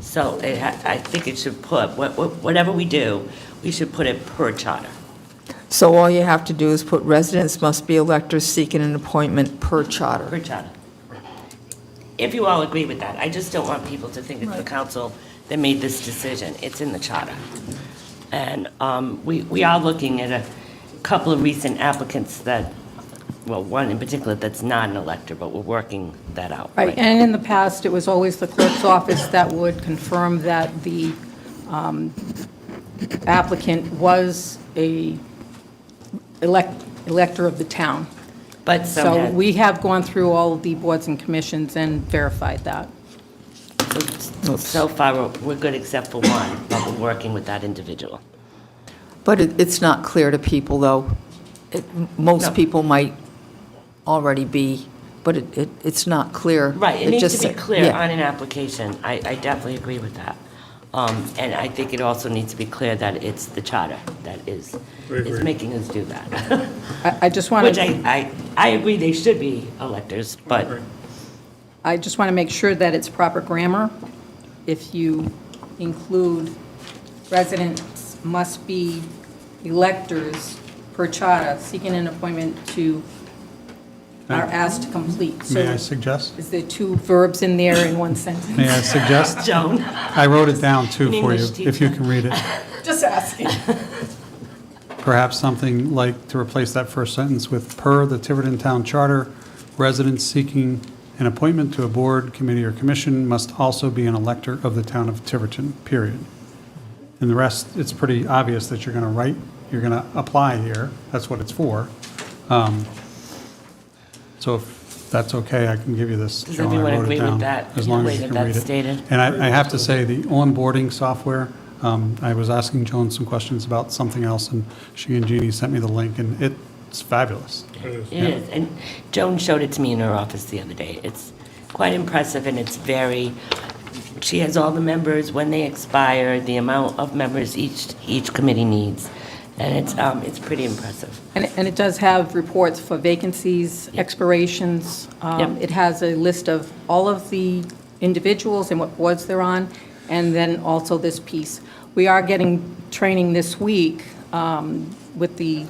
So it ha- I think it should put, wha- wha- whatever we do, we should put it per charter. So all you have to do is put residents must be electors seeking an appointment per charter. per charter. If you all agree with that, I just don't want people to think it's the council that made this decision. It's in the charter. And um, we, we are looking at a couple of recent applicants that, well, one in particular that's not an elector, but we're working that out. Right, and in the past, it was always the clerk's office that would confirm that the um, applicant was a elect- elector of the town. But some So have- we have gone through all of the boards and commissions and verified that. So far, we're- we're good except for one, but we're working with that individual. But it, it's not clear to people, though. It- No. Most people might already be, but it, it- it's not clear. Right, it needs just- to be clear yeah. on an application. I, I definitely agree with that. Um, And I think it also needs to be clear that it's the charter that is, is making us do that. I I just want Which to, I, I, I agree they should be electors, but I just want to make sure that it's proper grammar. If you include residents must be electors per charter seeking an appointment to, are asked to complete. So May I suggest? Is there two verbs in there in one sentence? May I suggest? Joan, I wrote it down too for you, English if you teacher. can read it. Just asking. Perhaps something like to replace that first sentence with, "Per the Tiverton Town Charter, residents seeking an appointment to a board, committee, or commission must also be an elector of the town of Tiverton," period. And the rest, it's pretty obvious that you're going to write, you're going to apply here. That's what it's for. Um, So if that's okay, I can give you this. Does Joan, I everyone wrote it agree with down, that, As the long way as you that can read that's it. stated? And I, I have to say, the onboarding software, um, I was asking Joan some questions about something else, and she and Jeannie sent me the link, and it's fabulous. it is. And Joan showed it to me in her office the other day. It's quite impressive and it's very, she has all the members, when they expire, the amount of members each, each committee needs. And it's, um, it's pretty impressive. And and it does have reports for vacancies, expirations. Um, Yep. It has a list of all of the individuals and what boards they're on, and then also this piece. We are getting training this week um, with the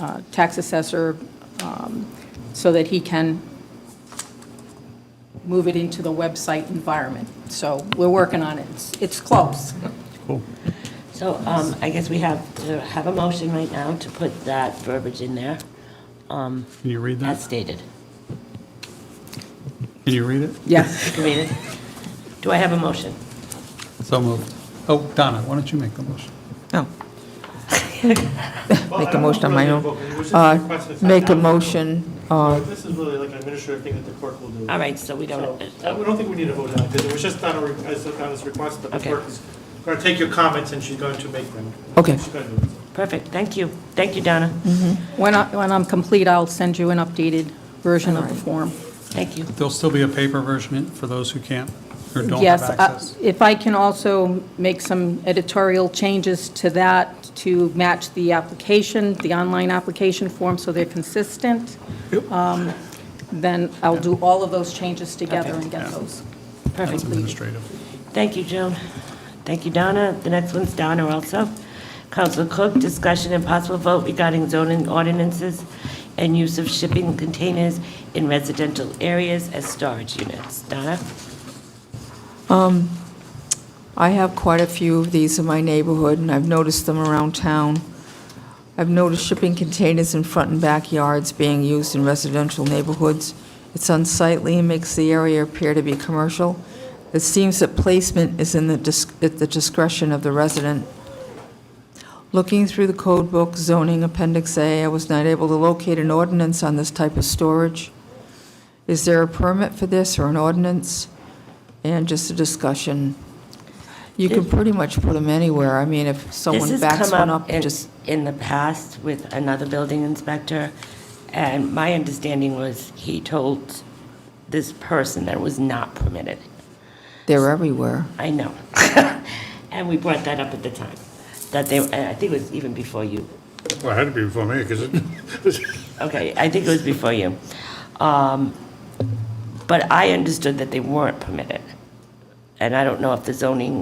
uh, tax assessor um, so that he can move it into the website environment. So we're working on it. It's- It's close. Cool. So um, I guess we have to have a motion right now to put that verbiage in there Um, Can you read as that? stated. Can you read it? Yes. You can read it. Do I have a motion? So moved. Oh, Donna, why don't you make the motion? No. Make a motion on my own. Uh, Make a motion, uh, This is really like an administrative thing that the clerk will do. All right, so we So, don't, I we don't think we need to vote on it, because it was just on a, re- as on this request, but the Okay. clerk is going to take your comments and she's going to make them. Okay. She's going to do it. perfect, thank you. Thank you, Donna. When I- when I'm complete, I'll send you an updated version of the form. Thank you. There'll still be a paper version for those who can't or don't have Yes, uh, access. if I can also make some editorial changes to that to match the application, the online application form, so they're consistent, um, then I'll do all of those changes together and get those. That's administrative. Thank you, Joan. Thank you, Donna. The next one's Donna also. Council Cook, discussion and possible vote regarding zoning ordinances and use of shipping containers in residential areas as storage units. Donna? I have quite a few of these in my neighborhood, and I've noticed them around town. I've noticed shipping containers in front and backyards being used in residential neighborhoods. It's unsightly and makes the area appear to be commercial. It seems that placement is in the dis- at the discretion of the resident. Looking through the code book zoning Appendix A, I was not able to locate an ordinance on this type of storage. Is there a permit for this or an ordinance? And just a discussion. You can pretty much put them anywhere. I mean, if someone This has backs come one up, in- just, In the past with another building inspector, and my understanding was he told this person that it was not permitted. they're everywhere. I know. And we brought that up at the time, that they, and I think it was even before you. Well, it had to be before me, because it, Okay, I think it was before you. Um, But I understood that they weren't permitted. And I don't know if the zoning